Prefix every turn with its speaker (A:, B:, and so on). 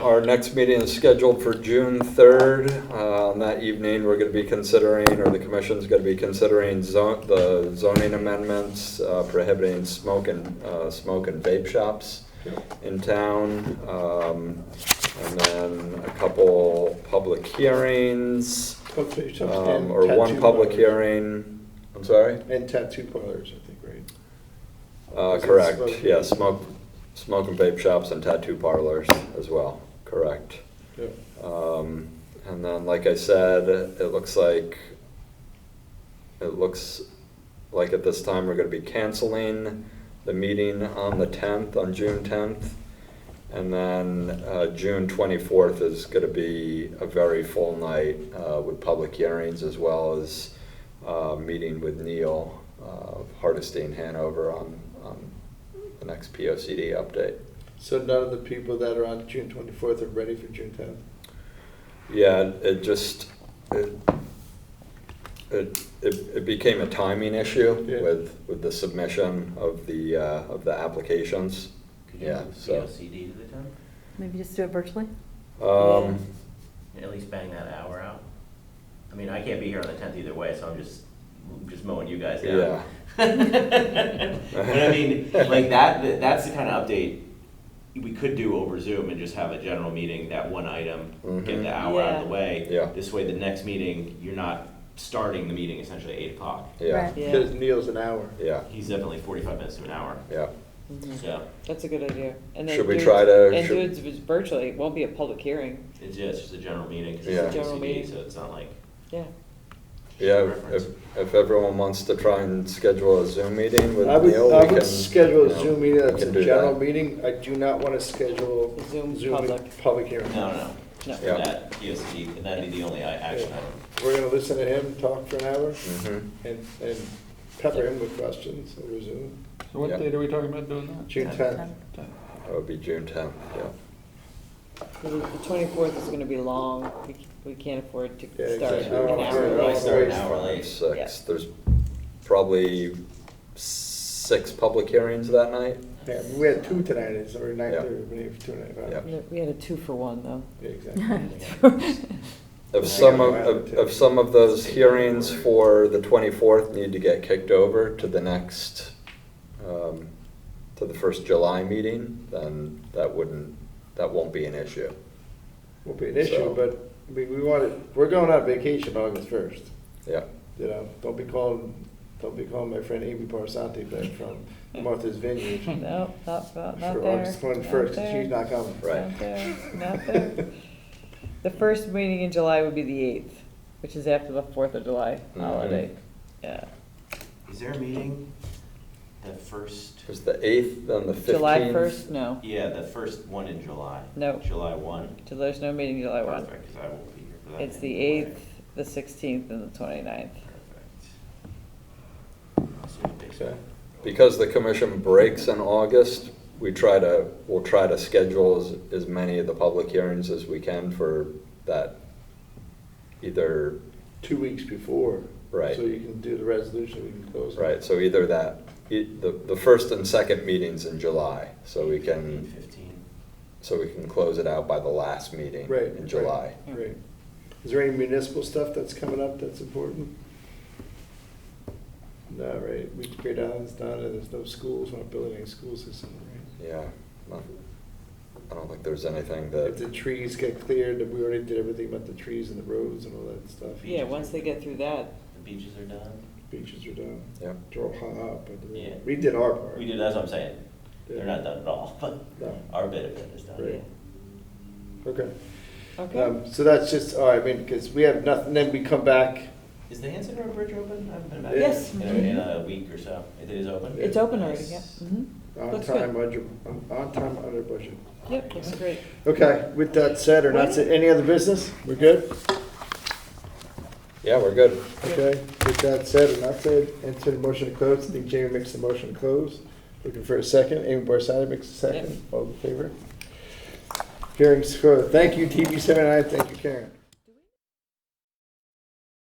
A: Our next meeting is scheduled for June 3rd. Uh, On that evening, we're going to be considering, or the commission's going to be considering zo- the zoning amendments uh, prohibiting smoke and, uh, smoke and vape shops in town. Um, And then a couple public hearings,
B: Coffee shops
A: um,
B: and
A: or one
B: tattoo
A: public
B: parlors.
A: hearing. I'm sorry?
B: And tattoo parlors, I think, right?
A: Uh,
B: Is it
A: correct,
B: smoke?
A: yeah, smoke, smoke and vape shops and tattoo parlors as well, correct.
B: Yep.
A: Um, and then, like I said, it looks like, it looks like at this time, we're gonna be canceling the meeting on the tenth, on June tenth. And then, uh, June twenty-fourth is gonna be a very full night, uh, with public hearings as well as, uh, meeting with Neil, uh, of Hardesty in Hanover on, on the next P O C D update.
B: So none of the people that are on June twenty-fourth are ready for June tenth?
A: Yeah, it- it just, it, it, it it became a timing issue
B: Yeah.
A: with, with the submission of the, uh, of the applications.
C: Could you
A: Yeah,
C: move
A: so.
C: COCD to the tenth?
D: Maybe just do it virtually?
A: Um,
C: At least bang that hour out? I mean, I can't be here on the tenth either way, so I'm just, just mowing you guys down.
A: Yeah.
C: But I mean, like that, that- that's the kind of update we could do over Zoom and just have a general meeting, that one item, get
A: Mhm.
C: the hour out of the way.
A: Yeah.
C: This way, the next meeting, you're not starting the meeting essentially at eight o'clock.
A: yeah,
D: Right.
E: Yeah.
B: Because Neil's an hour.
A: yeah,
C: He's definitely forty-five minutes to an hour,
A: yeah.
E: Mhm.
C: so
E: That's a good idea. And then
A: Should we
E: do it-
A: try to-
E: And do
A: should-
E: it v- virtually, it won't be a public hearing,
C: it's, yeah, it's just a general meeting, 'cause
A: Yeah.
C: it's a
E: General
C: COCD,
E: meeting.
C: so it's not like.
E: yeah.
A: Yeah, if- if, if everyone wants to try and schedule a Zoom meeting with
B: I would,
A: Neil,
B: I
A: we can.
B: would schedule
A: you
B: a
A: know,
B: Zoom meeting,
A: we
B: that's
A: can
B: a
A: do
B: general
A: that.
B: meeting. I do not want to schedule
E: A Zoom
B: Zoom
E: public.
B: public hearing.
C: No, no,
E: No.
C: no.
A: Yeah.
C: That, POCD, and that'd be the only i- action item.
B: We're gonna listen to him talk for an hour
A: Mhm.
B: and, and pepper him with questions over Zoom.
F: So what
A: Yeah.
F: date are we talking about doing that?
B: June tenth.
A: That would be June tenth, yeah.
E: The twenty-fourth is gonna be long, we, c- we can't afford to
B: Yeah,
E: start
B: exactly.
E: an
B: Oh,
E: hour.
B: yeah.
E: early.
C: Really start an
B: always
C: hour
A: Five,
C: late.
A: Six, there's probably six public hearings that night.
B: Yeah, we had two tonight, it's already nine
A: Yeah.
B: thirty, we need two tonight. huh?
A: Yeah.
E: We had a two for one, though.
B: Yeah, exactly.
E: Well,
A: If
C: I
A: some
B: got
A: of,
B: mine
A: of-
B: too.
A: of some of those hearings for the 24th need to get kicked over to the next, um, to the first July meeting, then that wouldn't, that won't be an issue.
B: Will be an
A: So-
B: issue, but we, we want to, we're going on vacation August first.
A: Yeah,
B: You know, don't be calling, don't be calling my friend Amy Parasanti back from Martha's Vineyard.
E: No, not, not, not
B: For
E: there.
B: August twenty-first,
E: not
B: she's
E: there,
B: not coming.
A: Right.
E: Not there, not there. The first meeting in July would be the eighth, which is after the Fourth of July
B: Mm-hmm.
A: Mhm.
E: holiday, yeah.
C: Is there a meeting, the first,
A: because the 8th and the 15th.
E: July first, no,
C: yeah, the first one in July?
E: No.
C: July one?
E: So there's no meeting July one.
C: Perfect, 'cause I won't be here for that.
E: It's the
C: meeting.
E: eighth, the sixteenth, and the twenty-ninth.
C: Perfect. I'll see what they say.
B: Okay.
A: Because the commission breaks in August, we try to, we'll try to schedule as, as many of the public hearings as we can for that, either,
B: Two weeks before.
A: Right.
B: So you can do the resolution, we can close. it.
A: right, so either that, e- the, the first and second meetings in July, so we can.
C: Fifteen.
A: so we can close it out by the last meeting
B: Right.
A: in
B: right,
A: July.
B: Right. Is there any municipal stuff that's coming up that's important? No, right, we, Great Island's done, and there's no schools, we're not building any school system, right?
A: Yeah, not- I don't think there's anything
B: If
A: that,
B: the trees get cleared, we already did everything about the trees and the roads and all that stuff.
E: Yeah, once they get through that,
C: The beaches are done.
B: Beaches are done.
A: yeah,
B: They're all hung up, but
C: Yeah.
B: we did our part.
C: We do, that's what I'm saying.
B: Yeah.
C: They're not done at all, but
B: No.
C: our bit of it is
B: Right.
C: done.
E: yeah.
B: Okay.
E: Okay,
B: Um, so that's just, all right, I mean, because we have nothing, then we come back.
C: Is the Hanson Road Bridge open? I haven't been back.
E: Yes.
C: In a, in a week or so. It is open?
E: it's open already,
C: Nice.
E: yeah, mhm,
B: On
E: Looks
B: time, under, on- on time, under budget.
E: yep, looks great.
B: Okay, with that said, or not said, any other business? We're good?
A: yeah, we're good.
B: Okay, with that said, or not said, enter the motion to close. I think Jamie makes the motion to close. Looking for a second. Amy Barsada makes a second. All in favor? Hearing's closed. Thank you, TV seven I. Thank you, Karen.